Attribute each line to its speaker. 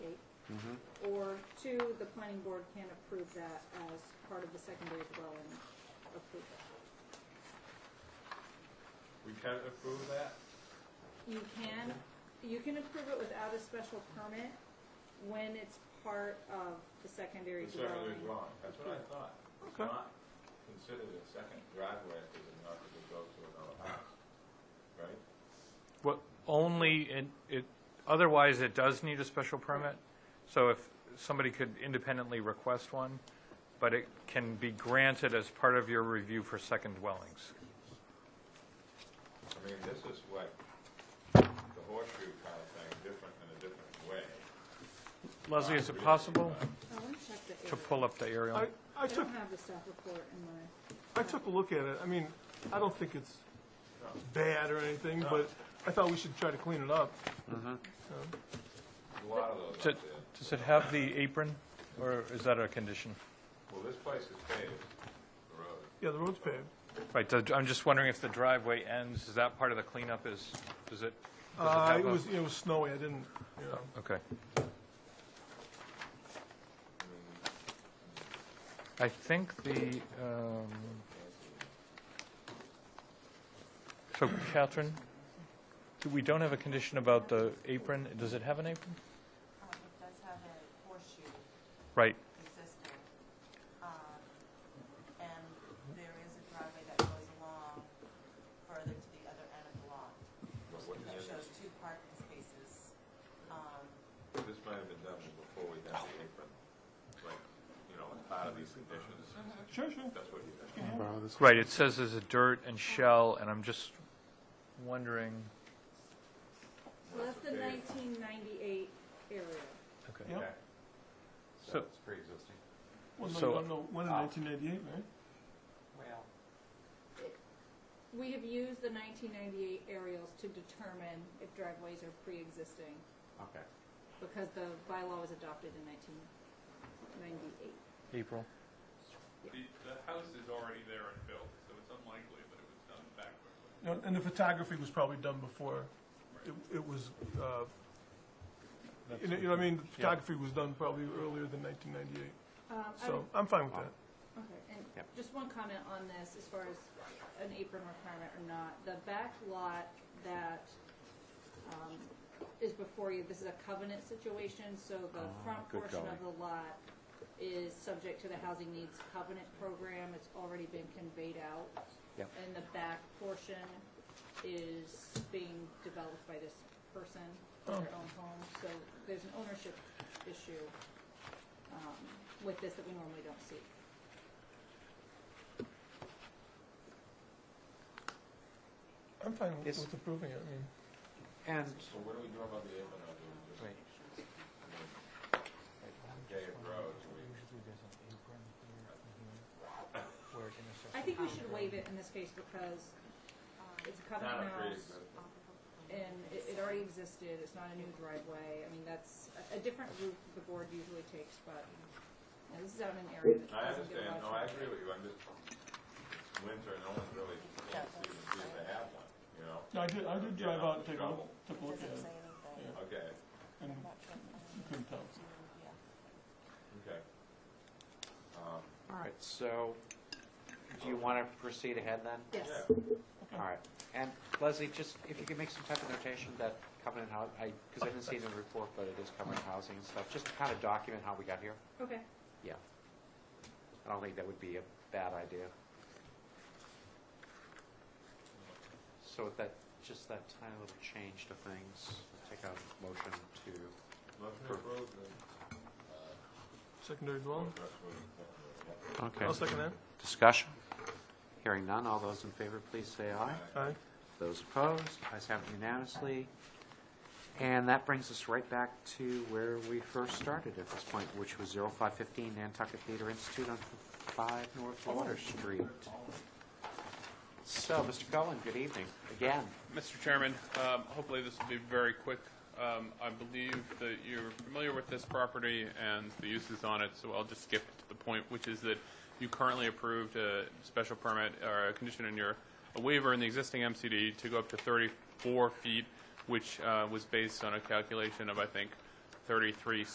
Speaker 1: Or two, the planning board can approve that as part of the secondary dwelling approval.
Speaker 2: We can approve that?
Speaker 1: You can, you can approve it without a special permit when it's part of the secondary
Speaker 2: The secondary
Speaker 1: dwelling.
Speaker 2: dwelling, that's what I thought. It's
Speaker 3: Okay.
Speaker 2: not considered a second driveway if it's enough to go to another house, right?
Speaker 3: What, only, in it, otherwise it does need a special permit? So if, somebody could independently request one, but it can be granted as part of your review for second dwellings.
Speaker 2: I mean, this is like the horseshoe kind of thing, different in a different way.
Speaker 3: Leslie, is it possible
Speaker 1: I want to Oh, check the
Speaker 3: to
Speaker 1: area.
Speaker 3: pull up the aerial?
Speaker 4: I, I
Speaker 1: I
Speaker 4: took,
Speaker 1: don't have the staff report in my,
Speaker 4: I took a look at it. I mean, I don't think it's bad or anything, but I thought we should try to clean it up.
Speaker 2: A lot of those up
Speaker 3: Does it-
Speaker 2: there.
Speaker 3: does it have the apron, or is that a condition?
Speaker 2: Well, this place is paved, the road.
Speaker 4: Yeah, the road's paved.
Speaker 3: Right, the- I'm just wondering if the driveway ends, is that part of the cleanup is, does it? does
Speaker 4: Uh,
Speaker 3: have
Speaker 4: it
Speaker 3: a-
Speaker 4: was, it was snowy. I didn't, you know.
Speaker 3: Okay.
Speaker 2: I mean,
Speaker 3: I think the, um, so Catherine, do- we don't have a condition about the apron. Does it have an apron?
Speaker 5: Um, It does have a horseshoe
Speaker 3: Right,
Speaker 5: existing. Um, And there is a driveway that goes along further to the other end of the lot.
Speaker 2: But what
Speaker 5: That
Speaker 2: is
Speaker 5: shows two parking spaces. Um,
Speaker 2: it? This might have been done before we had the apron, like, you know, as part of these conditions,
Speaker 4: Sure, sure.
Speaker 2: that's what you think.
Speaker 3: right. It says there's a dirt and shell, and I'm just wondering.
Speaker 1: well, that's the nineteen ninety-eight area.
Speaker 3: Okay.
Speaker 4: Yeah.
Speaker 2: Okay.
Speaker 3: So-
Speaker 2: it's pre-existing.
Speaker 4: Well, no,
Speaker 3: So-
Speaker 4: you don't know when in
Speaker 2: Ah.
Speaker 4: 1988, right?
Speaker 2: Well.
Speaker 1: We have used the nineteen ninety-eight aerials to determine if driveways are pre-existing,
Speaker 2: Okay.
Speaker 1: because the bylaw was adopted in nineteen ninety-eight.
Speaker 3: April.
Speaker 6: The, the house is already there and built, so it's unlikely that it was done backwards.
Speaker 4: You know, And the photography was probably done before it, it was, uh, you know, you know what I mean? The
Speaker 3: Yeah.
Speaker 4: Photography was done probably earlier than 1998.
Speaker 1: Um, I
Speaker 4: So I'm fine with that.
Speaker 1: Okay, and just one comment on this, as far as an apron requirement or not, the back lot that um, is before you, this is a covenant situation, so the front portion of the lot is subject to the housing needs covenant program, it's already been conveyed out. And the back portion is being developed by this person, their own home, so there's an ownership issue um, with this that we normally don't see.
Speaker 4: I'm fine with-
Speaker 7: Yes.
Speaker 4: with approving it. I mean,
Speaker 7: And
Speaker 2: So what do we do about the apron, or do we just,
Speaker 7: Right.
Speaker 2: I mean, paved road, do we,
Speaker 1: I think we should waive it in this case because uh, it's a
Speaker 2: not a
Speaker 1: covenant house
Speaker 2: pre-existing?
Speaker 1: and it, it already existed, it's not a new driveway. I mean, that's a, a different route the board usually takes, but you know, this is out in an area that
Speaker 2: I
Speaker 1: doesn't get a
Speaker 2: understand, no,
Speaker 1: lot
Speaker 2: I
Speaker 1: of
Speaker 2: agree with you, I'm just, it's winter, no one's really, can't see the see if they have one, you know?
Speaker 4: no, I did, I did drive out and take a look,
Speaker 2: Trouble.
Speaker 5: It
Speaker 4: took a look at
Speaker 5: doesn't
Speaker 4: it.
Speaker 5: say anything.
Speaker 4: Yeah.
Speaker 2: Okay,
Speaker 4: And
Speaker 5: I'm not sure if I'm-
Speaker 4: you couldn't tell.
Speaker 5: Yeah.
Speaker 2: okay. Um,
Speaker 7: All right, so do you want to proceed ahead then?
Speaker 1: Yes,
Speaker 2: yeah.
Speaker 7: All right. And Leslie, just if you could make some type of notation that covenant house, I, because I didn't see it in the report, but it is covenant housing and stuff, just to kind of document how we got here.
Speaker 1: okay.
Speaker 7: Yeah. I don't think that would be a bad idea. So with that, just that tiny little change to things, take out motion to,
Speaker 2: Motion approved, and,
Speaker 4: Secondary dwelling?
Speaker 2: that's what we-
Speaker 7: okay.
Speaker 4: I'll second that.
Speaker 7: Discussion? Hearing none, all those in favor, please say aye.
Speaker 4: Aye.
Speaker 7: Those opposed, ayes have it unanimously. And that brings us right back to where we first started at this point, which was 0515 Nantucket Theater Institute on 5 North Water Street. So, Mr. Cullen, good evening, again.
Speaker 6: Mr. Chairman, um, hopefully this will be very quick. Um, I believe that you're familiar with this property and the uses on it, so I'll just skip to the point, which is that you currently approved a special permit or a condition in your a waiver in the existing MCD to go up to 34 feet, which uh, was based on a calculation of, I think, 33